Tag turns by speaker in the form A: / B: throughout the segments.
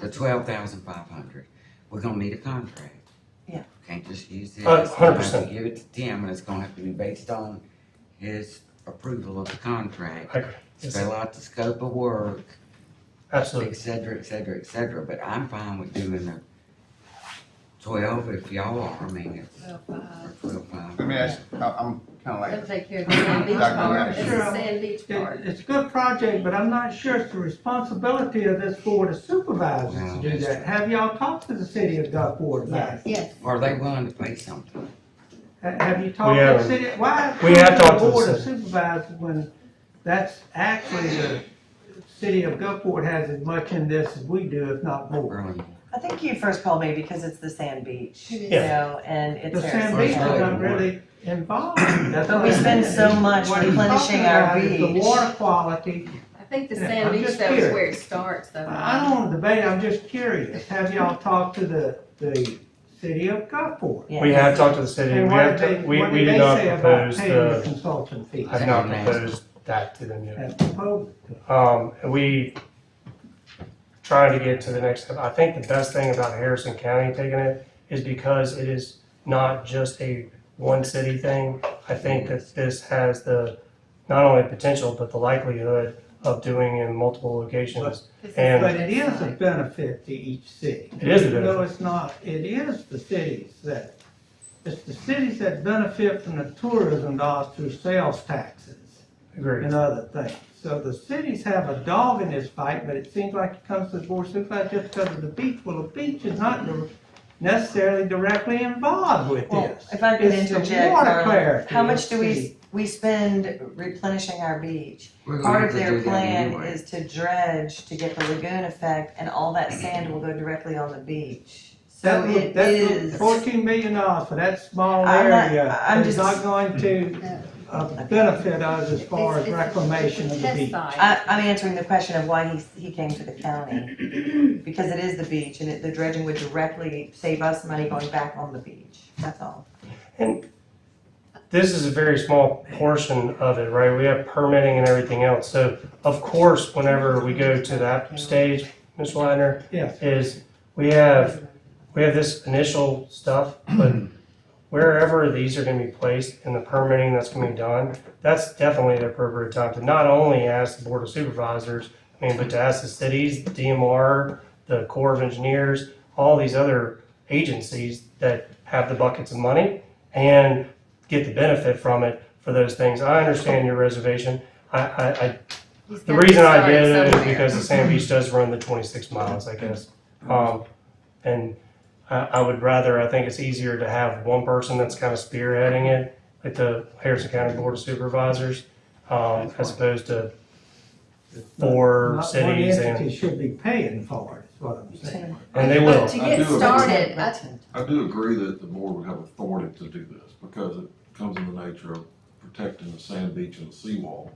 A: the twelve thousand five hundred, we're gonna need a contract.
B: Yeah.
A: Can't just use it.
C: Hun- Uh, hundred percent.
A: Give it to Tim, and it's gonna have to be based on his approval of the contract.
C: I agree. Yes,
A: Spell out the scope of work,
C: Absolutely.
A: et cetera, et cetera, et cetera, but I'm fine with doing the twelve if y'all are, I mean, it's,
B: Well,
A: or
B: uh,
A: twelve five.
D: Let me ask, I- I'm kinda
B: They'll
D: like,
B: take care of the sand beach
D: Dr.
B: part,
D: Madison.
B: it's the sand beach part.
E: It- It's a good project, but I'm not sure it's the responsibility of this board of supervisors to do that. Have y'all talked to the city of Gulfport about it?
B: Yes,
A: Are they willing to pay something?
E: Ha- Have you talked to the
C: haven't.
E: city? Why?
C: We have talked to the
E: Board of supervisors when that's actually the city of Gulfport has as much in this as we do, if not more.
A: Really?
F: I think you first called me because it's the sand beach, you
B: It
C: is.
F: know, and it's
E: The sand
F: Harrison
E: beach is
A: Harrisburg.
F: County.
E: not really involved. That's all
F: We
E: I'm
F: spend
E: saying.
F: so much
E: What he's
F: replenishing
E: talking
F: our
E: about is The
F: beach.
E: water quality.
B: I think the
E: Yeah,
B: sand
E: I'm
B: beach
E: just
B: though is
E: curious.
B: where it starts though.
E: I don't want to debate, I'm just curious. Have y'all talked to the, the city of Gulfport?
F: Yeah.
C: We have talked to the city,
E: And
C: we
E: what
C: have,
E: did they,
C: to- we,
E: what
C: we
E: did
C: did
E: they
C: not
E: say about
C: propose
E: paying the
C: the,
E: consultant fees?
C: have not proposed that to them yet.
E: That's proposed.
C: Um, we trying to get to the next step. I think the best thing about Harrison County taking it is because it is not just a one city thing. I think that this has the, not only potential, but the likelihood of doing in multiple locations.
B: This is-
C: And-
E: But it is a benefit to each city.
C: It is a benefit.
E: No, it's not, it is the cities that, it's the cities that benefit from the tourism dollars through sales taxes.
C: Agreed.
E: and other things. So the cities have a dog in this fight, but it seems like it comes to the board of supervisors just because of the beach. Well, the beach is not dir- necessarily directly involved with
F: Well,
E: this.
F: if I could
E: It's the
F: interject,
E: water
F: Carla,
E: clarity
F: how
E: of
F: much do
E: city.
F: we, we spend replenishing our beach?
A: We're gonna
F: Part
A: have
F: of
A: to
F: their
A: do that
F: plan
A: anyway.
F: is to dredge to get the lagoon effect, and all that sand will go directly on the beach. So
E: That would-
F: it
E: that would-
F: is,
E: Fourteen million dollars for that small
F: I'm not-
E: area
F: I'm
E: is
F: just-
E: not going to
B: No.
E: uh, benefit us as
B: It's-
E: far as
B: it's a-
E: reclamation
B: it's a
E: of the
B: test
E: beach. Uh,
B: site.
F: I, I'm answering the question of why he, he came to the county, because it is the beach, and it, the dredging would directly save us money going back on the beach, that's all.
C: this is a very small portion of it, right? We have permitting and everything else. So of course, whenever we go to that stage, Ms. Leitner,
E: Yes.
C: is we have, we have this initial stuff, but wherever these are gonna be placed and the permitting that's gonna be done, that's definitely the appropriate time to not only ask the Board of Supervisors, I mean, but to ask the cities, the DMR, the Corps of Engineers, all these other agencies that have the buckets of money and get the benefit from it for those things. I understand your reservation. I, I, I,
B: He's
C: the
B: gotta
C: reason I
B: start
C: did it is
B: somewhere.
C: because the Sand Beach does run the twenty-six miles, I guess. Um, and I, I would rather, I think it's easier to have one person that's kind of spearheading it, like the Harrison County Board of Supervisors, um, as opposed to four
E: Not one
C: cities
E: entity
C: and,
E: should be paying for it, is what I'm saying.
C: and they
B: But
C: will.
B: to
G: I
B: get
G: do.
B: started, I
G: I do agree that the board would have authority to do this because it comes in the nature of protecting the sand beach and the seawall.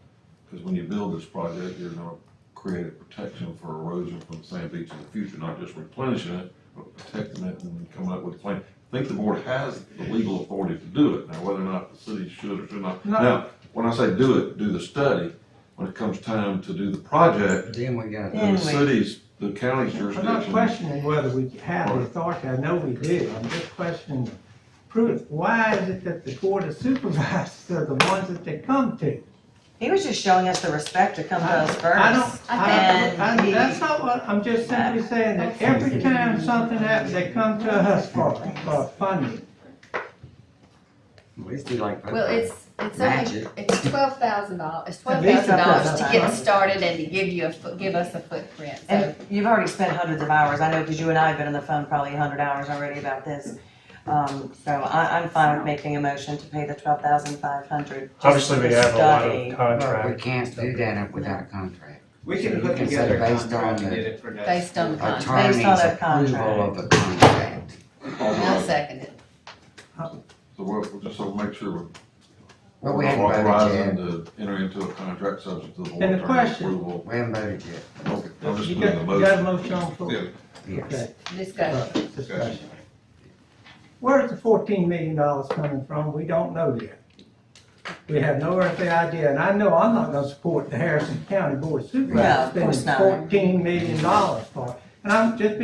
G: Because when you build this project, you're gonna create a protection for erosion from the sand beach in the future, not just replenishing it, but protecting it and coming up with a plan. I think the board has the legal authority to do it. Now, whether or not the city should or should not.
E: No.
G: Now, when I say do it, do the study, when it comes time to do the project,
A: Then we got.
G: then the
F: Anyway.
G: city's, the county's
E: I'm not
G: jurisdiction.
E: questioning whether we have the authority, I know we do, I'm just questioning the proof. Why is it that the board of supervisors are the ones that they come to?
F: He was just showing us the respect to come to us first.
E: I don't, I
F: And
E: don't, I-
F: he- Uh,
E: that's not what, I'm just simply saying that every time something happens, they come to us for, for funding.
A: At least do like.
B: Well, it's, it's only,
A: Magic.
B: it's twelve thousand dollars, it's
E: At
B: twelve
E: least
B: thousand
E: I thought
B: dollars to
E: that
B: get
E: was-
B: started and to give you a, fo- give us a footprint, so.
F: And you've already spent hundreds of hours, I know, because you and I have been on the phone probably a hundred hours already about this. Um, so I, I'm fine with making a motion to pay the twelve thousand five hundred.
C: Obviously, we have a lot of
A: But we
C: contracts.
A: can't do that without a contract.
H: We can put together a contract and get it for next.
B: Based on the
H: October.
A: Attorney's
B: contract.
F: Based on a
A: approval of a contract.
B: I'll second it.
G: So we'll, we'll just sort of make sure we're
A: But we
G: We're
A: haven't voted
G: Authorizing
A: yet.
G: to enter into a contract subject to the board
E: And the
G: attorney's
E: question-
G: approval.
A: We haven't voted yet.
G: Okay, I'm just
E: You
G: putting
E: got,
G: the
E: you
G: motion.
E: got a motion on the floor?
G: Yeah,
A: Yes.
E: Okay,
B: Discussion.
E: all right, Uh, discussion. Where's the fourteen million dollars coming from? We don't know yet. We have no earthly idea, and I know I'm not gonna support the Harrison County Board of
F: No, of
E: Supervisors
F: course
E: spending
F: not.
E: fourteen million dollars for it. And I'm just being